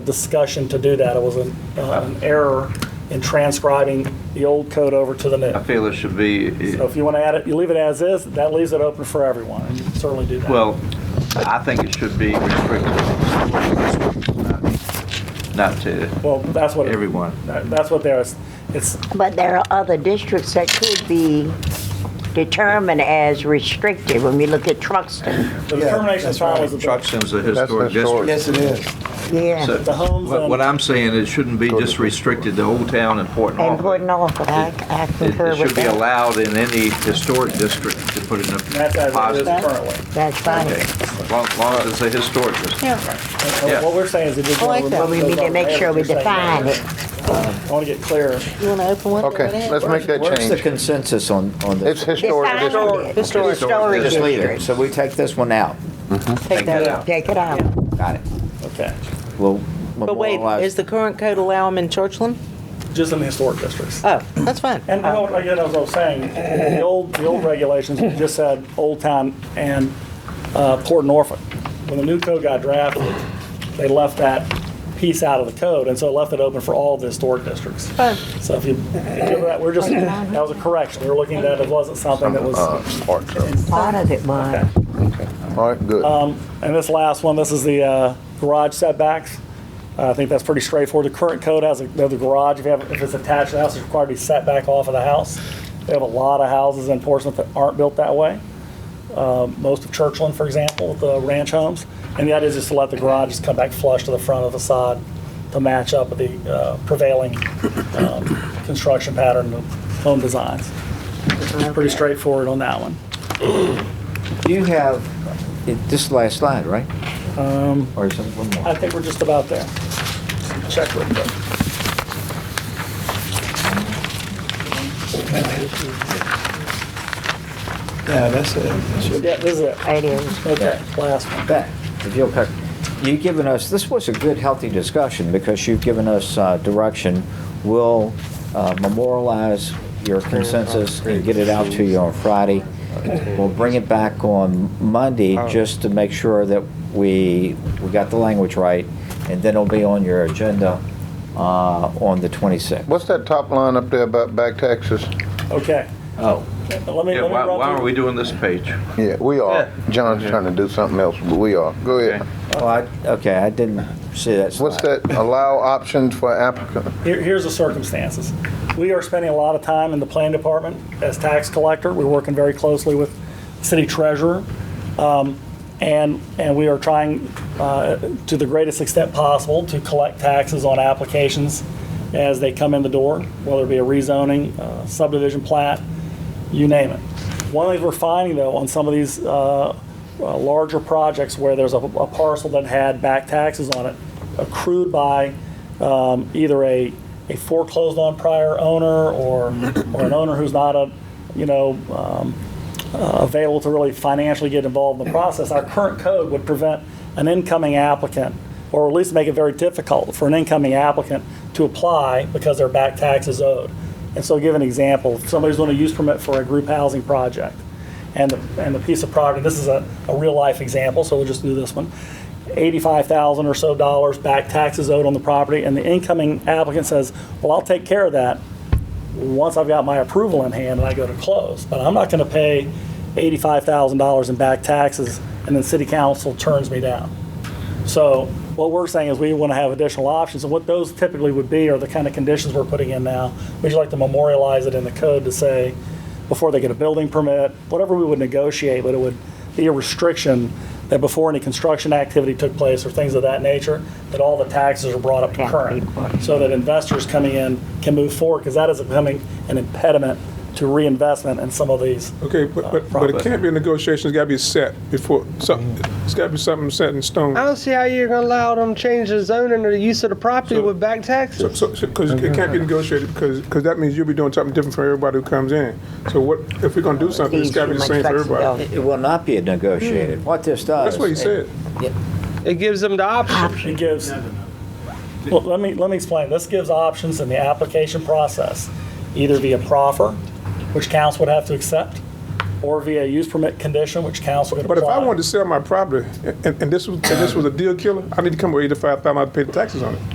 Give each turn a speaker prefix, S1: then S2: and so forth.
S1: discussion to do that. It was an, uh, an error in transcribing the old code over to the
S2: I
S1: new.
S2: feel it should be,
S1: So if you want to add it, you leave it as is, that leaves it open for everyone, and you can certainly do that.
S2: well, I think it should be restricted, not- not to
S1: Well, that's what.
S2: everyone.
S1: that- That's what there is. It's,
S3: But there are other districts that could be determined as restricted when we look at Truxton.
S1: the
S4: Yeah,
S1: determination
S4: that's
S1: time
S4: right.
S1: was. the-
S2: Truxton's a
S5: That's
S2: historic
S5: historic.
S2: district.
S4: Yes, it is.
S3: Yeah,
S2: So
S1: The homes
S2: what-
S1: on-
S2: What I'm saying, it shouldn't be just restricted to Old Town and Port
S3: and Port
S2: Norfolk.
S3: Norfolk, I I
S2: It
S3: concur
S2: oh, it should
S3: with
S2: be
S3: that.
S2: allowed in any historic district to put in
S1: That's
S2: a
S1: as it is
S2: positive.
S1: currently.
S3: That's fine.
S2: Okay, as long as long as it's a historic district.
S1: And- and
S2: Yeah.
S1: What we're saying is it just.
S3: I like that. We need to make sure we define it.
S1: I want to get clear.
S6: You want to open one?
S5: Okay, let's make that
S7: Where's the
S5: change.
S7: consensus on, on
S5: It's
S7: this?
S5: historic
S3: Define
S5: district.
S3: it. Historic
S2: Historic
S7: Just leave it,
S3: district.
S7: so we take this one out,
S6: Take that out.
S3: Take it out.
S7: got it.
S1: Okay.
S7: We'll
S6: But wait, is
S7: memorialize.
S6: the current code allow them in Churchland?
S1: Just in the historic districts.
S6: Oh, that's fine.
S1: And you know, again, as I was saying, the old, the old regulations just said Old Town and uh, Port Norfolk. When the new code got drafted, they left that piece out of the code, and so it left it open for all the historic districts.
S6: Fine.
S1: So if you, if you- we're just, that was a correction. We were looking at it, it wasn't something that was,
S5: Uh, part of it.
S3: Part of it was.
S5: All right, good.
S1: and this last one, this is the uh, garage setbacks. Uh, I think that's pretty straightforward. The current code has, a- the garage, if you have, if it's attached to the house, it's required to be set back off of the house. We have a lot of houses in Portsmouth that aren't built that way. Um, Most of Churchland, for example, with the ranch homes. And the idea is just to let the garage just come back flush to the front of the facade to match up with the uh, prevailing um, construction pattern of home designs. Pretty straightforward on that one.
S7: You have, it- this is the last slide, right?
S6: Um,
S7: Or is it one
S1: I
S7: more?
S1: think we're just about there. Check real quick.
S4: Yeah, that's it. That should-
S1: Yeah, this is it.
S3: It is.
S1: Okay, last one.
S7: Back, if you'll, cut- you've given us, this was a good, healthy discussion, because you've given us uh, direction. We'll uh, memorialize your consensus and get it out to you on Friday. We'll bring it back on Monday, just to make sure that we, we got the language right, and then it'll be on your agenda uh, on the 26th.
S5: What's that top line up there about back taxes?
S1: Okay,
S7: Oh,
S1: let me, let me
S2: Yeah, why, why
S1: run
S2: are we
S1: through.
S2: doing this page?
S5: Yeah, we are. John's trying to do something else, but we are. Go ahead.
S2: Okay.
S7: well, Oh, I- okay, I didn't see that slide.
S5: What's that, allow options for applicant?
S1: Here, here's the circumstances. We are spending a lot of time in the plan department as tax collector. We're working very closely with city treasurer. um, And, and we are trying, uh, to the greatest extent possible, to collect taxes on applications as they come in the door, whether it be a rezoning, uh, subdivision plat, you name it. One of the things we're finding, though, on some of these uh, uh, larger projects where there's a a parcel that had back taxes on it accrued by um, either a a foreclosed on prior owner or, or an owner who's not a, you know, um, uh, available to really financially get involved in the process, our current code would prevent an incoming applicant, or at least make it very difficult for an incoming applicant to apply because their back tax is owed. And so, give an example: if somebody's doing a use permit for a group housing project, and the, and the piece of property. This is a, a real life example, so we'll just do this one. Eighty-five thousand or so dollars back taxes owed on the property, and the incoming applicant says, "Well, I'll take care of that." once I've got my approval in hand and I go to close. But I'm not going to pay $85,000 in back taxes and then city council turns me down. So what we're saying is we want to have additional options. And what those typically would be are the kind of conditions we're putting in now. We'd like to memorialize it in the code to say, before they get a building permit, whatever we would negotiate, but it would be a restriction that before any construction activity took place or things of that nature, that all the taxes are brought up to current, so that investors coming in can move forward, because that is becoming an impediment to reinvestment in some of these.
S8: Okay, but, but, but it can't be a negotiation, it's gotta be set before, something, it's gotta be something set in stone.
S9: I don't see how you're gonna allow them to change the zoning or the use of the property
S8: So-
S9: with back taxes.
S8: So, so, so- cause it can't be negotiated, because, because that means you'll be doing something different for everybody who comes in. So what, if we're gonna do something, it's gotta be the same for everybody.
S7: It it will not be negotiated. What this does.
S8: That's what he said.
S9: It gives them the option.
S1: It gives, well, let me, let me explain. This gives options in the application process, either via proffer, which council would have to accept, or via use permit condition, which council could apply.
S8: But if I wanted to sell my property, and, and this was, and this was a deal killer, I need to come with eighty-five thousand dollars to pay the taxes on it.